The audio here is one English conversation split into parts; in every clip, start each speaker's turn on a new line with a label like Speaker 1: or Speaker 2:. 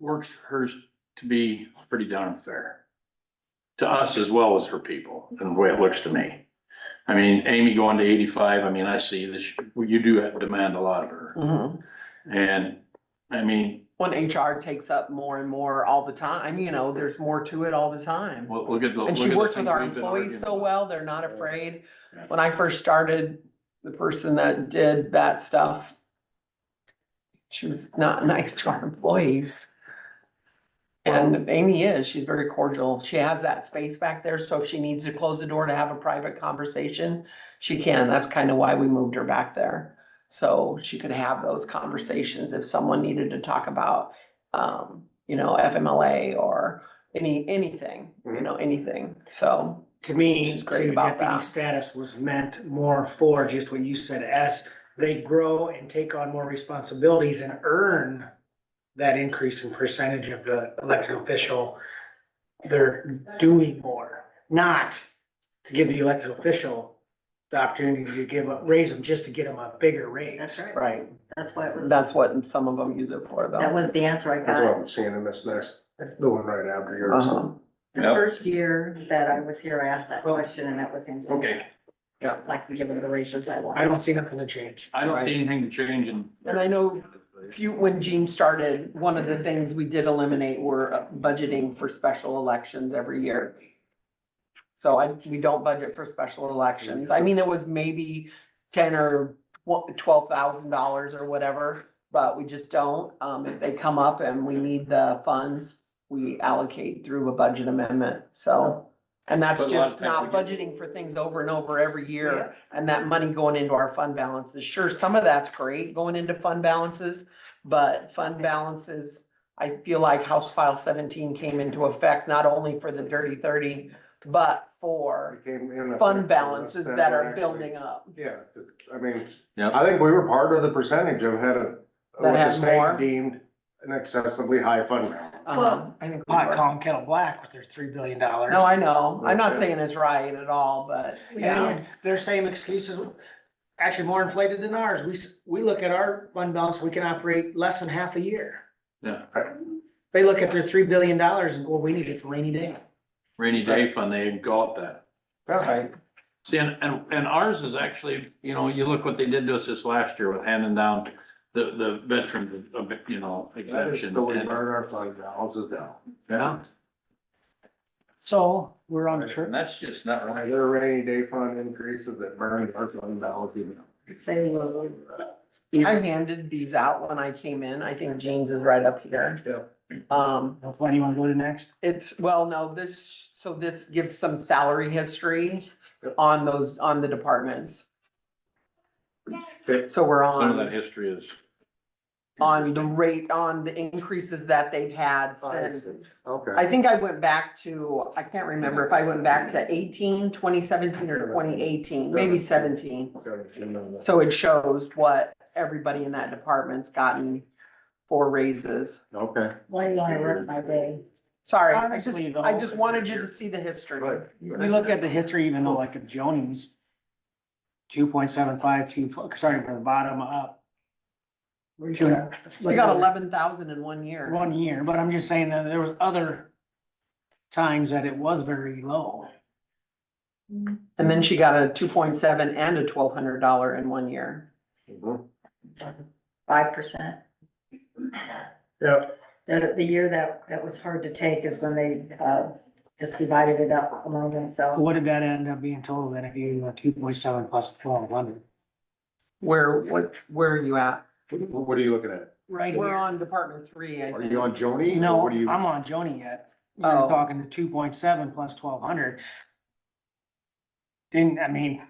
Speaker 1: works hers to be pretty darn fair. To us as well as her people, and the way it looks to me. I mean, Amy going to eighty-five, I mean, I see that she- you do have- demand a lot of her.
Speaker 2: Mhm.
Speaker 1: And, I mean,
Speaker 2: When HR takes up more and more all the time, you know, there's more to it all the time.
Speaker 1: look look at the.
Speaker 2: And she
Speaker 1: look at the
Speaker 2: works with
Speaker 1: things
Speaker 2: our
Speaker 1: we've been
Speaker 2: employees
Speaker 1: arguing
Speaker 2: so
Speaker 1: about.
Speaker 2: well, they're not
Speaker 1: Yeah.
Speaker 2: afraid.
Speaker 1: Yeah.
Speaker 2: When I first started, the person that did that stuff, she was not nice to our employees. And Amy is, she's very cordial. She has that space back there, so if she needs to close the door to have a private conversation, she can. That's kind of why we moved her back there. So she could have those conversations if someone needed to talk about, um, you know, FMLA or any, anything, you know, anything, so.
Speaker 3: to me,
Speaker 2: She's great
Speaker 3: to
Speaker 2: about
Speaker 3: deputy
Speaker 2: that.
Speaker 3: status was meant more for just what you said, as they grow and take on more responsibilities and earn that increase in percentage of the elected official, they're doing more, not to give the elected official the opportunity to give up, raise them just to get them a bigger raise.
Speaker 4: That's right.
Speaker 2: Right.
Speaker 4: That's why it was,
Speaker 2: That's what some of them use it for
Speaker 4: that
Speaker 2: though.
Speaker 4: was the answer I
Speaker 5: That's what
Speaker 4: got.
Speaker 5: I'm seeing in this next, the one right after yours.
Speaker 2: Uh-huh.
Speaker 4: The
Speaker 1: Yep.
Speaker 4: first year that I was here, I asked that question and that was the answer.
Speaker 1: Okay,
Speaker 4: Like, give them the raises I want.
Speaker 3: I don't see nothing to change.
Speaker 1: I don't see anything to change in.
Speaker 2: And I know If you, when Jean started, one of the things we did eliminate were uh, budgeting for special elections every year. So I, we don't budget for special elections. I mean, it was maybe ten or twelve thousand dollars or whatever, but we just don't. Um, if they come up and we need the funds, we allocate through a budget amendment, so. And that's
Speaker 1: But a lot of
Speaker 2: just
Speaker 1: times
Speaker 2: not
Speaker 1: we get-
Speaker 2: budgeting for things over and over every year and that money going into our fund balances. Sure, some of that's great going into fund balances. But fund balances, I feel like House File seventeen came into effect not only for the dirty thirty, but for
Speaker 5: Came in a-
Speaker 2: fund balances that are building up.
Speaker 5: Yeah, I mean,
Speaker 1: Yep.
Speaker 5: I think we were part of the percentage of had a, what the
Speaker 2: had more?
Speaker 5: state deemed an excessively high fund balance.
Speaker 2: Um, I think. we
Speaker 3: Pot
Speaker 2: were.
Speaker 3: calling kettle black with their three billion dollars.
Speaker 2: No, I know. I'm not saying it's right at all, but yeah,
Speaker 3: And their same excuses, actually more inflated than ours. We, s- we look at our fund balance, we can operate less than half a year.
Speaker 1: Yeah,
Speaker 3: They look at their three billion dollars and, well, we need it for rainy day.
Speaker 1: rainy day fund, they got that.
Speaker 2: right.
Speaker 1: And, and, and ours is actually, you know, you look what they did to us this last year with handing down the, the veteran, uh, you know,
Speaker 5: That is
Speaker 1: exemption.
Speaker 5: the way we
Speaker 1: and-
Speaker 5: burn our fund balances down.
Speaker 1: Yeah,
Speaker 3: So we're on the
Speaker 1: and
Speaker 3: trip.
Speaker 1: that's just not right.
Speaker 5: Their rainy day fund increases that burn our fund balances down.
Speaker 4: Say, well,
Speaker 2: I handed these out when I came in. I think Jeans is right up here.
Speaker 5: Yep.
Speaker 2: Um,
Speaker 3: Why do you wanna go to next?
Speaker 2: It's, well, no, this, so this gives some salary history
Speaker 5: Yep.
Speaker 2: on those, on the departments.
Speaker 5: Yep.
Speaker 2: So we're
Speaker 1: Some of that
Speaker 2: on,
Speaker 1: history is.
Speaker 2: on the rate, on the increases that they've had
Speaker 5: I
Speaker 2: since.
Speaker 5: see. Okay.
Speaker 2: I think I went back to, I can't remember if I went back to 18, 2017, or twenty eighteen, maybe seventeen. So it shows what everybody in that department's gotten for raises.
Speaker 5: Okay.
Speaker 4: why do you wanna ruin my day?
Speaker 2: Sorry, I just,
Speaker 3: Honestly, though-
Speaker 2: I just wanted you to see the history.
Speaker 5: Right.
Speaker 3: We look at the history, even though like at Joni's, two point seven five, two, starting from the bottom up. We
Speaker 2: We got eleven thousand in one year.
Speaker 3: One year, but I'm just saying that there was other times that it was very low.
Speaker 2: And then she got a two point seven and a twelve hundred dollar in one year.
Speaker 5: Mhm.
Speaker 4: Five percent.
Speaker 5: Yep.
Speaker 4: The, the year that, that was hard to take is when they, uh, just divided it up among themselves.
Speaker 3: What did that end up being total then if you, uh, two point seven plus twelve hundred?
Speaker 2: Where, what, where are you at?
Speaker 5: What what are you looking at?
Speaker 3: Right
Speaker 2: We're
Speaker 3: here.
Speaker 2: on department three, I
Speaker 5: Are you
Speaker 2: think.
Speaker 5: on Joni? or
Speaker 3: No,
Speaker 5: What are you?
Speaker 3: I'm on Joni yet. We're
Speaker 2: Oh.
Speaker 3: talking to two point seven plus twelve hundred. Didn't, I mean,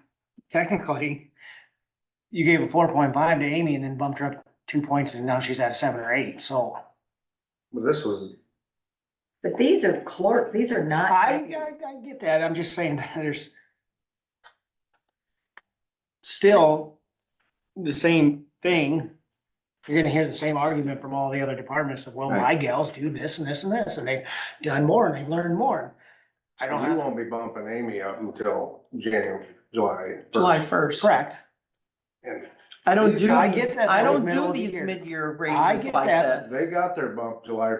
Speaker 3: technically, you gave a four point five to Amy and then bumped her up two points and now she's at a seven or eight, so.
Speaker 5: Well, This was,
Speaker 4: But these are clerk, these are not.
Speaker 3: I, I, I get that, I'm just saying that there's still the same thing, you're gonna hear the same argument from all the other departments of, well, my
Speaker 5: Right.
Speaker 3: gals do this and this and this, and they've done more and they've learned more. I don't
Speaker 5: you
Speaker 3: have,
Speaker 5: won't be bumping Amy up until January, July.
Speaker 2: July
Speaker 5: 1st.
Speaker 2: first.
Speaker 3: correct,
Speaker 5: And
Speaker 2: I don't do,
Speaker 3: I get
Speaker 2: these-
Speaker 3: that
Speaker 2: I
Speaker 3: that was
Speaker 2: don't
Speaker 3: middle
Speaker 2: do
Speaker 3: of the
Speaker 2: these
Speaker 3: year.
Speaker 2: mid-year
Speaker 3: I
Speaker 2: raises
Speaker 3: get
Speaker 2: like
Speaker 3: that.
Speaker 2: this.
Speaker 5: they got their bump July